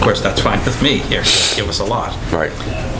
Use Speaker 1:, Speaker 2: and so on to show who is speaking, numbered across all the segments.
Speaker 1: course, that's fine with me, here, give us a lot.
Speaker 2: Right.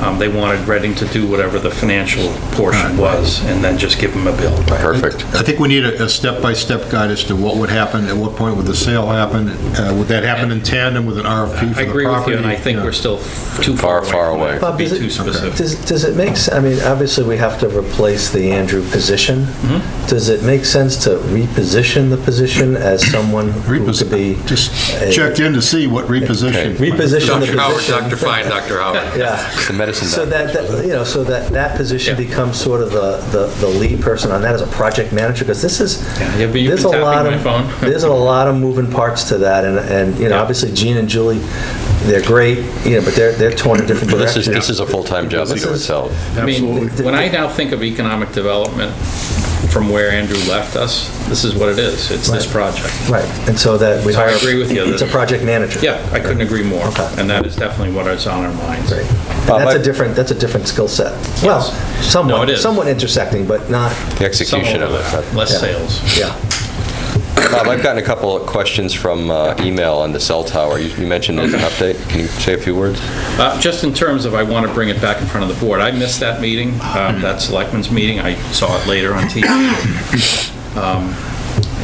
Speaker 1: Um, They wanted Reading to do whatever the financial portion was, and then just give them a bill.
Speaker 2: Perfect.
Speaker 3: I think we need a a step-by-step guide as to what would happen, at what point would the sale happen, uh, would that happen in tandem with an RFP for the
Speaker 1: I
Speaker 3: property?
Speaker 1: agree with you, and I think
Speaker 3: Yeah.
Speaker 1: we're still f- too far
Speaker 2: Far, far
Speaker 1: away. from
Speaker 4: Bob,
Speaker 1: that to
Speaker 4: does
Speaker 1: Be too
Speaker 4: it-
Speaker 1: specific.
Speaker 4: Does, does it make, sen- I mean, obviously, we have to replace the Andrew position.
Speaker 1: Mm-hmm.
Speaker 4: Does it make sense to reposition the position as someone who could be?
Speaker 3: Reposi- Just
Speaker 4: a-
Speaker 3: checked in to see what reposition.
Speaker 4: Reposition the
Speaker 5: Dr. Howard,
Speaker 4: position.
Speaker 5: Dr. Fine, Dr. Howard.
Speaker 4: Yeah.
Speaker 2: The medicine
Speaker 4: So
Speaker 2: doctor.
Speaker 4: that, that- you know, so that, that position
Speaker 1: Yeah.
Speaker 4: becomes sort of the, the the lead person on that as a project manager, because this is,
Speaker 1: Yeah, you've been- you've
Speaker 4: there's a
Speaker 1: been tapping my
Speaker 4: lot of,
Speaker 1: phone.
Speaker 4: there's a lot of moving parts to that, and, and, you know,
Speaker 1: Yeah.
Speaker 4: obviously Gene and Julie, they're great, you know, but they're, they're torn in different
Speaker 2: Well, this is,
Speaker 4: directions.
Speaker 2: this is a full-time job
Speaker 4: This
Speaker 2: unto
Speaker 4: is-
Speaker 2: itself.
Speaker 1: I mean,
Speaker 4: Absolutely.
Speaker 1: when I now think of economic development from where Andrew left us, this is what it is. It's this
Speaker 4: Right.
Speaker 1: project.
Speaker 4: Right, and so that we
Speaker 1: So I
Speaker 4: hire...
Speaker 1: agree with you
Speaker 4: It's a
Speaker 1: that-
Speaker 4: project manager.
Speaker 1: Yeah, I couldn't agree more.
Speaker 4: Okay.
Speaker 1: And that is definitely what is on our minds.
Speaker 4: Great.
Speaker 2: Bob,
Speaker 4: And that's
Speaker 2: I-
Speaker 4: a different, that's a different skill set. Well,
Speaker 1: Yes. No, it
Speaker 4: somewhat,
Speaker 1: is.
Speaker 4: somewhat intersecting, but not,
Speaker 2: The
Speaker 1: Some
Speaker 2: execution of
Speaker 1: overlap,
Speaker 2: it.
Speaker 1: Less
Speaker 4: Yeah.
Speaker 1: sales.
Speaker 4: yeah.
Speaker 2: Bob, I've gotten a couple of questions from uh, email on the cell tower. You you mentioned there's an update. Can you say a few words?
Speaker 1: Uh, Just in terms of, I want to bring it back in front of the board. I missed that meeting,
Speaker 2: Mm-hmm.
Speaker 1: um, that selectmen's meeting. I saw it later on TV. Um,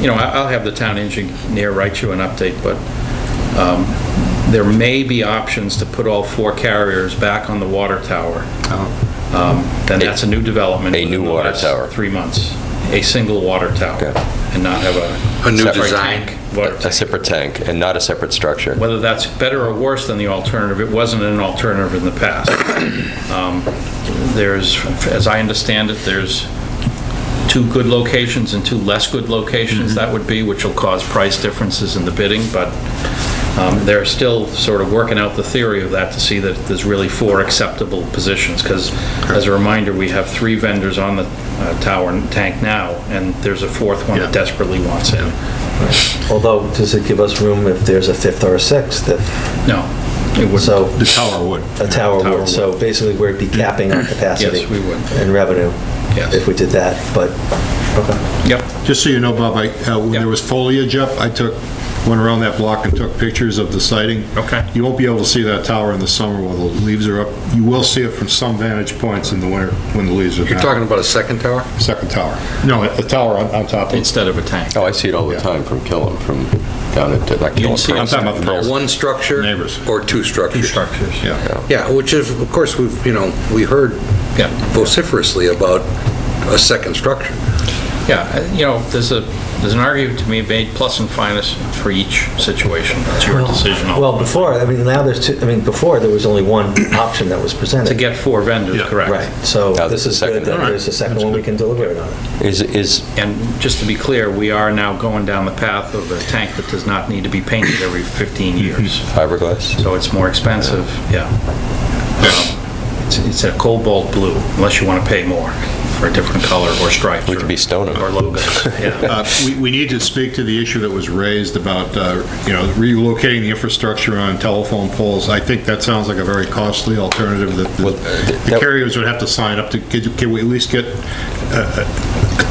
Speaker 1: You know, I- I'll have the town engineer write you an update, but um, there may be options to put all four carriers back on the water tower. Um, Then that's a new development.
Speaker 2: Oh. A new
Speaker 1: within the
Speaker 2: water
Speaker 1: last
Speaker 2: tower.
Speaker 1: Three months. A single water tower
Speaker 2: Okay.
Speaker 1: and not have a.
Speaker 5: A new
Speaker 1: separate
Speaker 5: design.
Speaker 1: tank, water
Speaker 2: A separate tank and not a separate structure.
Speaker 1: whether that's better or worse than the alternative, it wasn't an alternative in the past. Um, There's, as I understand it, there's two good locations and two less good locations that would be, which will cause price differences in the bidding, but um, they're still sort of working out the theory of that to see that there's really four acceptable positions, because as a reminder, we have three vendors on the uh, tower and tank now, and there's a fourth one that
Speaker 3: Yeah.
Speaker 1: desperately wants in.
Speaker 4: Although, does it give us room if there's a fifth or a sixth? that-
Speaker 1: No, it wouldn't.
Speaker 4: So,
Speaker 3: The tower would.
Speaker 4: a tower
Speaker 1: Tower
Speaker 4: would, so basically, we'd be capping our capacity.
Speaker 1: Yes, we would.
Speaker 4: And revenue.
Speaker 1: Yes.
Speaker 4: If we did that, but, okay.
Speaker 1: Yep.
Speaker 3: Just so you know, Bob, I, uh, when
Speaker 1: Yeah.
Speaker 3: there was foliage up, I took, went around that block and took pictures of the siding.
Speaker 1: Okay.
Speaker 3: You won't be able to see that tower in the summer while the leaves are up. You will see it from some vantage points in the winter when the leaves are down.
Speaker 5: You're talking about a second tower?
Speaker 3: Second tower. No, the tower on on top of it.
Speaker 1: Instead of a tank.
Speaker 2: Oh, I see it all the time from Killam, from down at, not
Speaker 1: You
Speaker 2: Killam,
Speaker 1: see it.
Speaker 2: Pearl-
Speaker 3: I'm talking about the neighbors.
Speaker 5: One structure?
Speaker 3: Neighbors.
Speaker 5: Or two structures?
Speaker 1: structures.
Speaker 3: Yeah.
Speaker 5: Yeah, which is, of course, we've, you know, we heard
Speaker 1: Yeah.
Speaker 5: vociferously about a second structure.
Speaker 1: Yeah, uh, you know, there's a, there's an argument to be made, plus and minus for each situation. It's your decision.
Speaker 4: Well, before, I mean, now there's two, I mean, before, there was only one option that was presented.
Speaker 1: To get four vendors,
Speaker 3: Yeah.
Speaker 1: correct.
Speaker 4: Right, so
Speaker 2: Now
Speaker 4: this
Speaker 2: there's a
Speaker 4: is good,
Speaker 2: second.
Speaker 4: that
Speaker 2: All right.
Speaker 4: there's a second one we can deliberate on.
Speaker 2: Is, is,
Speaker 1: And just to be clear, we are now going down the path of a tank that does not need to be painted every 15
Speaker 2: Mhm.
Speaker 1: years.
Speaker 2: fiberglass?
Speaker 1: So it's more expensive, yeah. Um, It's it's a cobalt blue, unless you want to pay more for a different color or stripes.
Speaker 2: We could
Speaker 1: or-
Speaker 2: be stoner.
Speaker 1: Or logos, yeah.
Speaker 3: Uh, we- We need to speak to the issue that was raised about, uh, you know, relocating the infrastructure on telephone poles. I think that sounds like a very costly alternative that
Speaker 2: Well,
Speaker 3: the- the
Speaker 2: that-
Speaker 3: carriers would have to sign up to, could you- can we at least get uh,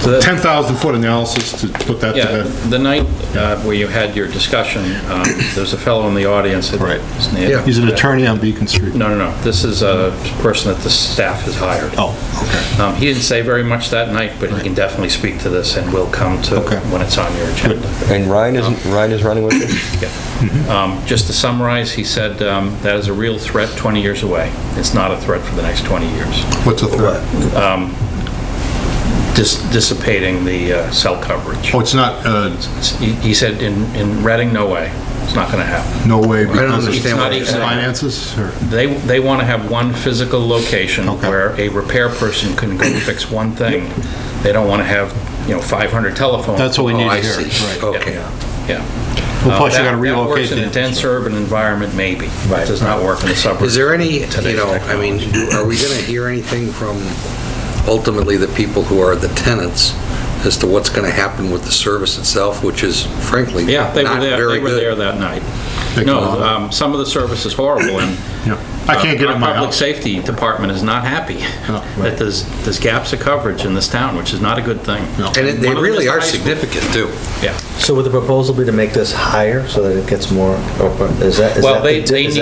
Speaker 1: So that-
Speaker 3: 10,000-foot analysis to put that to
Speaker 1: Yeah,
Speaker 3: bed?
Speaker 1: the night uh, where you had your discussion, um, there's a fellow in the audience. that-
Speaker 3: Right.
Speaker 1: his name-
Speaker 3: He's an attorney on Beacon Street.
Speaker 1: No, no, no. This is a person that the staff has hired.
Speaker 3: Oh, okay.
Speaker 1: Um, He didn't say very much that night, but he can definitely speak to this and will come to
Speaker 3: Okay.
Speaker 1: when it's on your agenda.
Speaker 2: And Ryan isn't, Ryan is running with it?
Speaker 1: Yeah.
Speaker 3: Mm-hmm.
Speaker 1: Um, Just to summarize, he said um, that is a real threat 20 years away. It's not a threat for the next 20 years.
Speaker 3: What's the threat?
Speaker 1: Dis- Dissipating the uh, cell coverage.
Speaker 3: Oh, it's not, uh,
Speaker 1: He he said in in Reading, no way. It's not going to happen.
Speaker 3: no way because of
Speaker 5: understand what you're
Speaker 1: saying.
Speaker 3: finances? or-
Speaker 1: They, they want to have one physical location
Speaker 3: Okay.
Speaker 1: where a repair person can go fix one thing. They don't want to have, you know, 500 telephones.
Speaker 3: That's what we need
Speaker 5: Oh, I
Speaker 3: to hear.
Speaker 5: see.
Speaker 3: Right.
Speaker 1: Yeah,
Speaker 5: Okay.
Speaker 1: Yeah.
Speaker 3: Well, plus
Speaker 1: Uh,
Speaker 3: you
Speaker 1: that-
Speaker 3: gotta
Speaker 1: That
Speaker 3: relocate
Speaker 1: works in
Speaker 3: the
Speaker 1: a dense urban environment, maybe. It
Speaker 4: Right.
Speaker 1: does not work in the suburbs.
Speaker 5: Is there any,
Speaker 1: Today's
Speaker 5: you know, I mean, do- are we going to hear anything from ultimately the people who are the tenants as to what's going to happen with the service itself, which is frankly
Speaker 1: Yeah,
Speaker 5: not
Speaker 1: they were there,
Speaker 5: very
Speaker 1: they were there
Speaker 5: good?
Speaker 1: that night.
Speaker 3: They come
Speaker 1: No,
Speaker 3: out.
Speaker 1: um, some of the service is horrible, and...
Speaker 3: Yeah. I can't get
Speaker 1: uh,
Speaker 3: in my
Speaker 1: Our public
Speaker 3: house.
Speaker 1: safety department is not happy
Speaker 3: No,
Speaker 1: that
Speaker 3: right.
Speaker 1: there's, there's gaps of coverage in this town, which is not a good thing.
Speaker 3: No.
Speaker 5: And it- they
Speaker 1: One of them is
Speaker 5: really
Speaker 1: the
Speaker 5: are
Speaker 1: high school.
Speaker 5: significant, too.
Speaker 1: Yeah.
Speaker 4: So would the proposal be to make this higher so that it gets more, open? is that? is
Speaker 1: Well,
Speaker 4: that the
Speaker 1: they-
Speaker 4: di-
Speaker 1: they
Speaker 4: is
Speaker 1: need